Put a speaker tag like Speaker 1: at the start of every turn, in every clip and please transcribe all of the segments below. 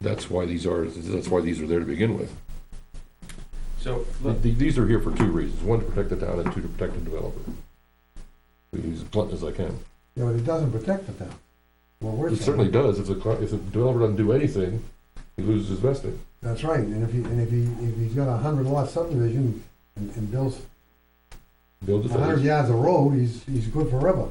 Speaker 1: That's why these are, that's why these are there to begin with.
Speaker 2: So,
Speaker 1: Th-
Speaker 2: look,
Speaker 1: th- These are here for two reasons, one, to protect the town, and two, to protect the developer. Be As blunt as I can.
Speaker 3: Yeah, but it doesn't protect the town. Well, we're
Speaker 1: It
Speaker 3: saying,
Speaker 1: certainly does, if the, cli- if the developer doesn't do anything, he loses his vesting.
Speaker 3: that's right, and if he, and if he, if he's got a hundred lot subdivision and, and builds
Speaker 1: Build
Speaker 3: a
Speaker 1: the
Speaker 3: hundred
Speaker 1: fence.
Speaker 3: yards of road, he's, he's good forever.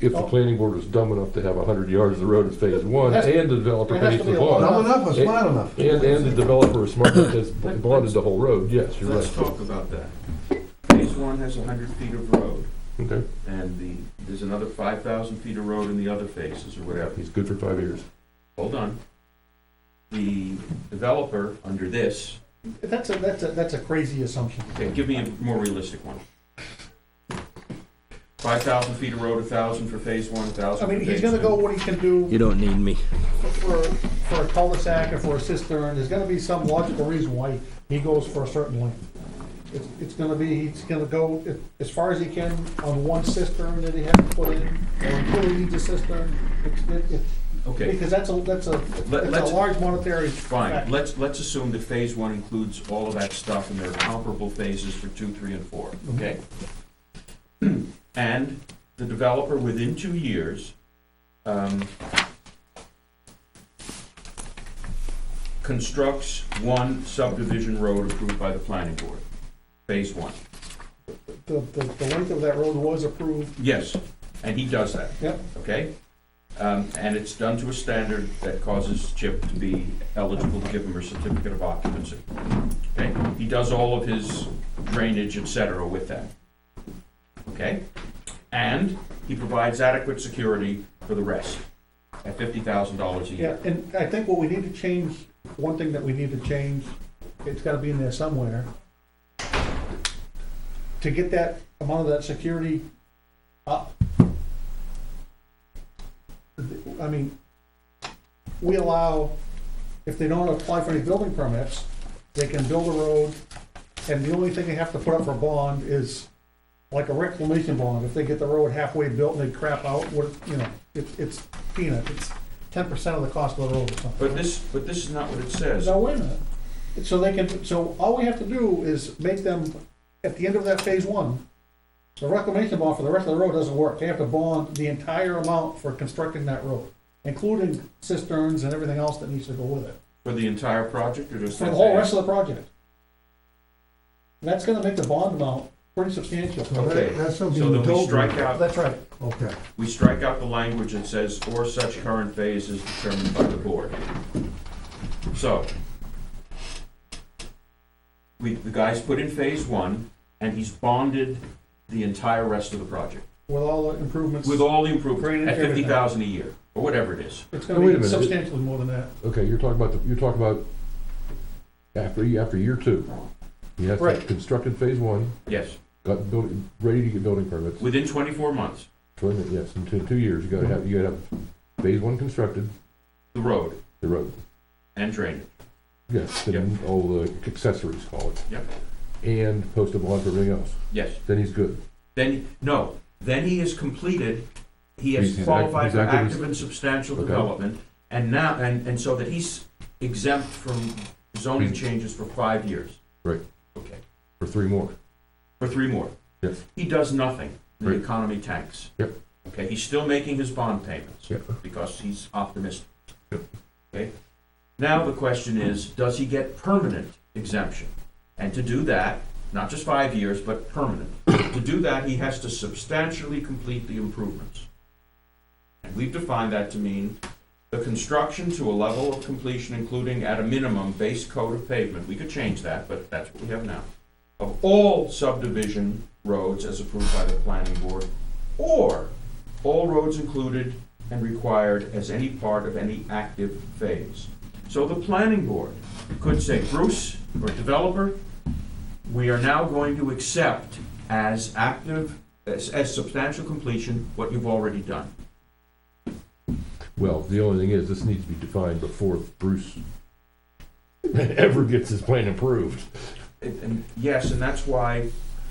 Speaker 1: If the planning board is dumb enough to have a hundred yards of road in phase one,
Speaker 2: Oh. It has-
Speaker 1: and the developer
Speaker 2: it has
Speaker 1: pays
Speaker 2: to
Speaker 1: the
Speaker 2: be a lot.
Speaker 1: bond,
Speaker 3: Dumb enough or
Speaker 1: Hey.
Speaker 3: smart enough?
Speaker 1: and, and the developer is smart enough to have bonded the whole road, yes, you're
Speaker 2: let's
Speaker 1: right.
Speaker 2: talk about that. Phase one has hundred feet of road,
Speaker 1: Okay,
Speaker 2: and the, there's another five thousand feet of road in the other phases or whatever.
Speaker 1: he's good for five years.
Speaker 2: Hold on. The developer, under this,
Speaker 4: That's a, that's a, that's a crazy assumption.
Speaker 2: okay, give me a more realistic one. Five thousand feet of road, a thousand for phase one, a
Speaker 4: I
Speaker 2: thousand for
Speaker 4: mean,
Speaker 2: phase two.
Speaker 4: he's gonna go what he can do
Speaker 5: You don't need me.
Speaker 4: for, for a cul-de-sac or for a cistern, there's gonna be some logical reason why he goes for a certain length. It's, it's gonna be, he's gonna go as far as he can on one cistern that he has to put in, or until he needs a cistern. It's- it- it-
Speaker 2: Okay,
Speaker 4: Because that's a, that's a, that's
Speaker 2: let's-
Speaker 4: a large monetary
Speaker 2: fine,
Speaker 4: factor.
Speaker 2: let's, let's assume that phase one includes all of that stuff, and there are comparable phases for two, three, and four, okay? And the developer, within two years, um, constructs one subdivision road approved by the planning board, phase one.
Speaker 4: The, the, the length of that road was approved,
Speaker 2: Yes, and he does that.
Speaker 4: Yep.
Speaker 2: Okay? Um, and it's done to a standard that causes Chip to be eligible to give him a certificate of occupancy. Okay? He does all of his drainage, et cetera, with that. Okay? And he provides adequate security for the rest at fifty thousand dollars a
Speaker 4: yeah,
Speaker 2: year.
Speaker 4: and I think what we need to change, one thing that we need to change, it's gotta be in there somewhere. To get that amount of that security up. I mean, we allow, if they don't apply for any building permits, they can build a road, and the only thing they have to put up for bond is like a reclamation bond, if they get the road halfway built and they crap out, what, you know, it's, it's peanut, it's ten percent of the cost of the road or something.
Speaker 2: But this, but this is not what it says.
Speaker 4: Now, wait a minute, so they can, so all we have to do is make them, at the end of that phase one, the reclamation bond for the rest of the road doesn't work, they have to bond the entire amount for constructing that road, including cisterns and everything else that needs to go with it,
Speaker 2: For the entire project or just
Speaker 4: for
Speaker 2: that
Speaker 4: the whole
Speaker 2: phase?
Speaker 4: rest of the project. That's gonna make the bond amount pretty substantial.
Speaker 3: So that-
Speaker 2: Okay,
Speaker 3: That's something
Speaker 2: So
Speaker 3: you
Speaker 2: then we
Speaker 3: told
Speaker 2: strike
Speaker 3: me.
Speaker 2: out
Speaker 4: That's right.
Speaker 3: Okay,
Speaker 2: we strike out the language that says, "or such current phase is determined by the board." So, we, the guy's put in phase one, and he's bonded the entire rest of the project,
Speaker 4: with all the improvements,
Speaker 2: with all the
Speaker 4: Green
Speaker 2: improvements,
Speaker 4: and
Speaker 2: at fifty thousand a year, or whatever it is.
Speaker 4: it's
Speaker 1: Wait a
Speaker 4: gonna be
Speaker 1: minute.
Speaker 4: substantially more than that.
Speaker 1: Okay, you're talking about, the- you're talking about after, after year two. You have to have
Speaker 4: Right.
Speaker 1: constructed phase one,
Speaker 2: Yes,
Speaker 1: got building, ready to get building permits.
Speaker 2: within twenty-four months,
Speaker 1: Twenty, yes, in two, two years, you gotta have, you gotta have phase one constructed,
Speaker 2: the road
Speaker 1: the road,
Speaker 2: and drainage.
Speaker 1: yes, and
Speaker 2: Yep.
Speaker 1: all the accessories, call it.
Speaker 2: Yep.
Speaker 1: And post a bond for everything else,
Speaker 2: Yes,
Speaker 1: then he's good.
Speaker 2: then, no, then he has completed, he
Speaker 1: He's-
Speaker 2: has
Speaker 1: he's act-
Speaker 2: qualified
Speaker 1: he's
Speaker 2: for
Speaker 1: active as-
Speaker 2: active and substantial
Speaker 1: Okay.
Speaker 2: development, and now, and, and so that he's exempt from zoning
Speaker 1: He's-
Speaker 2: changes for five years.
Speaker 1: Right.
Speaker 2: Okay,
Speaker 1: For three more,
Speaker 2: for three more.
Speaker 1: yes,
Speaker 2: He does nothing, the
Speaker 1: Right.
Speaker 2: economy tanks.
Speaker 1: Yep.
Speaker 2: Okay, he's still making his bond payments,
Speaker 1: yeah,
Speaker 2: because he's optimistic.
Speaker 1: Yep.
Speaker 2: Okay, now the question is, does he get permanent exemption? And to do that, not just five years, but permanent. To do that, he has to substantially complete the improvements. And we've defined that to mean the construction to a level of completion, including at a minimum base coat of pavement, we could change that, but that's what we have now, of all subdivision roads as approved by the planning board, or all roads included and required as any part of any active phase. So the planning board could say, Bruce, or developer, we are now going to accept as active, as, as substantial completion, what you've already done.
Speaker 1: well, the only thing is, this needs to be defined before Bruce ever gets his plan approved.
Speaker 2: And- and yes, and that's why,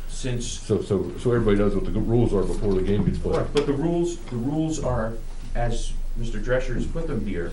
Speaker 2: since,
Speaker 1: So, so, so everybody knows what the rules are before the game gets played.
Speaker 2: but the rules, the rules are, as Mr. Drescher has put them here,